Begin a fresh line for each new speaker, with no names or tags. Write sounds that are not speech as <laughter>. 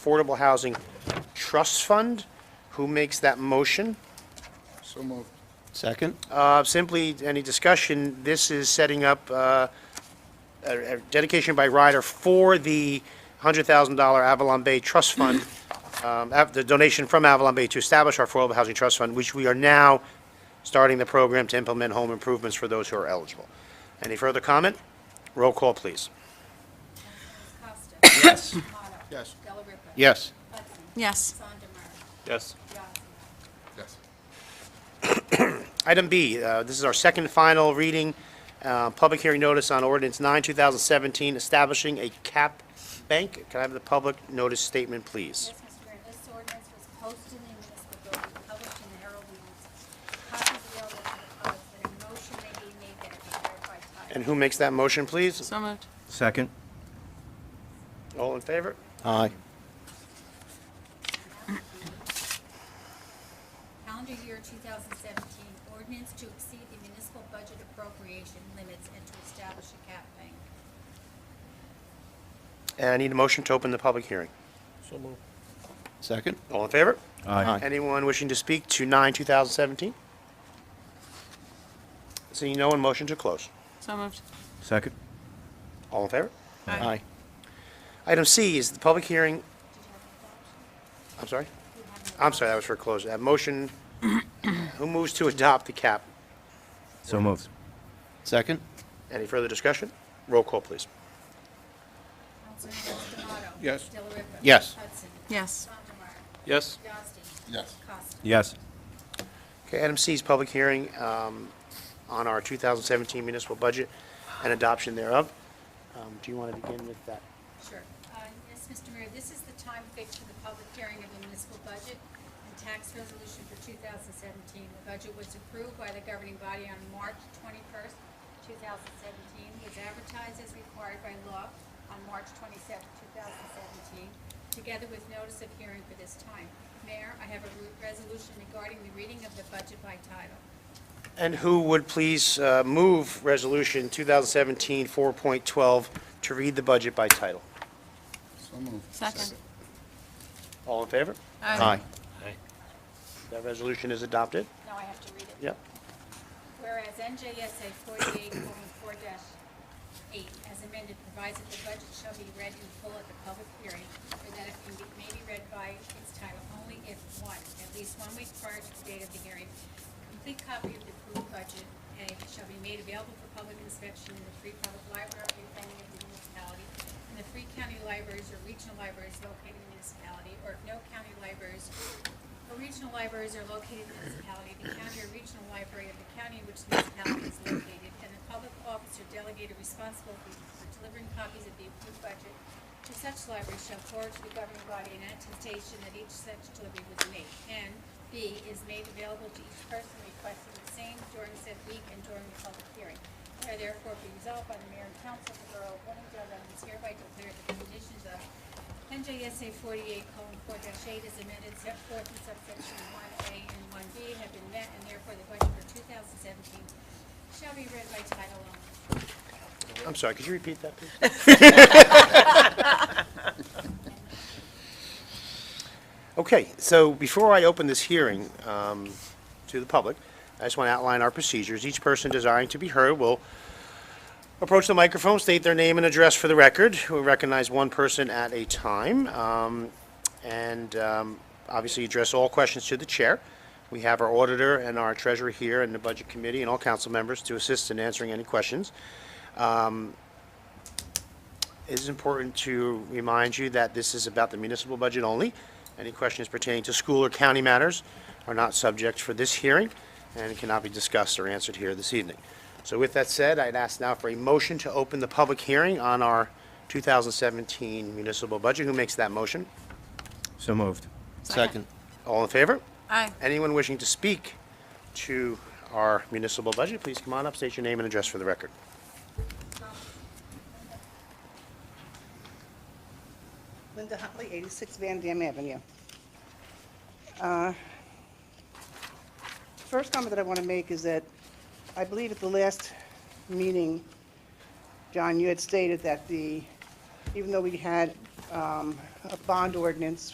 Affordable Housing Trust Fund. Who makes that motion?
So moved.
Second?
Uh, Simply, any discussion, this is setting up uh, a a dedication by rider for the $100,000 Avalon Bay Trust Fund, um, av- the donation from Avalon Bay to establish our Affordable Housing Trust Fund, which we are now starting the program to implement home improvements for those who are eligible. Any further comment? Roll call, please.
Costa. Yes. Otto.
Yes.
Dela Ripa.
Yes.
Hudson.
Yes.
Sandemeyer.
Yes.
Yasi.
Yes.
Item B, uh, this is our second final reading, uh, public hearing notice on ordinance 9, 2017, establishing a cap bank. Can I have the public notice statement, please?
Yes, Mr. Mayor, this ordinance was posted in the municipal building, published in the Herald News. Copies of the ordinance are public, but a motion may be made that it be read by title.
And who makes that motion, please?
So moved.
Second?
All in favor?
Aye.
Calendar year 2017, ordinance to exceed the municipal budget appropriation limits and to establish a cap bank.
And I need a motion to open the public hearing.
Second?
All in favor?
Aye.
Anyone wishing to speak to 9, 2017? Seeing no one, motion to close.
So moved.
Second?
All in favor?
Aye.
Item C is the public hearing,
Did you have
I'm
an adoption?
sorry?
You have an
I'm sorry, that was for close. That motion, <coughs> who moves to adopt the cap?
So moved.
Second?
Any further discussion? Roll call, please.
Councilmember Spinato.
Yes.
Dela Ripa.
Yes.
Hudson.
Yes.
Sandemeyer.
Yes.
Yasi.
Yes.
Costa.
Yes.
Okay, item C is public hearing um, on our 2017 municipal budget and adoption thereof. Um, Do you want to begin with that?
Sure. Uh, Yes, Mr. Mayor, this is the time fixed for the public hearing of the municipal budget and tax resolution for 2017. The budget was approved by the governing body on March 21st, 2017, was advertised as required by law on March 27th, 2017, together with notice of hearing for this time. Mayor, I have a re- resolution regarding the reading of the budget by title.
And who would please uh, move Resolution 2017 4.12 to read the budget by title?
So moved.
Second.
All in favor?
Aye.
That resolution is adopted?
Now I have to read it.
Yep.
Whereas NJSA forty-eight four eight, as amended, provides that the budget shall be read in full at the public hearing, or that it can be, may be read by its title only if, one, at least one week prior to the date of the hearing, complete copy of the approved budget, A, shall be made available for public inspection in the Free Public Library of Planning of the municipality, in the Free County Libraries or Regional Libraries located in the municipality, or if no county libraries the regional libraries are located in the municipality, the county or regional library of the county in which the municipality is located, and the public officer delegated responsibility for delivering copies of the approved budget to such library shall forward to the governing body an attestation that each such delivery was made, and B, is made available to each person requesting the same during said week and during the public hearing. Now therefore be resolved by the mayor and council of the borough of Wilmington, that it is hereby declared the conditions of NJSA forty-eight colon four dash eight is amended, set forth in subsection one A and one B have been met, and therefore the budget for two thousand seventeen shall be read by title only.
I'm sorry, could you repeat that, please? Okay, so before I open this hearing um, to the public, I just want to outline our procedures. Each person desiring to be heard will approach the microphone, state their name and address for the record. We'll recognize one person at a time, um, and um, obviously address all questions to the chair. We have our auditor and our treasurer here, and the budget committee, and all council members to assist in answering any questions. It is important to remind you that this is about the municipal budget only. Any questions pertaining to school or county matters are not subject for this hearing and cannot be discussed or answered here this evening. So with that said, I'd ask now for a motion to open the public hearing on our 2017 municipal budget. Who makes that motion?
So moved.
Second?
All in favor?
Aye.
Anyone wishing to speak to our municipal budget, please come on up, state your name and address for the record.
Linda Huntley, 86 Van Dam Avenue. Uh, First comment that I want to make is that I believe at the last meeting, John, you had stated that the, even though we had um, a bond ordinance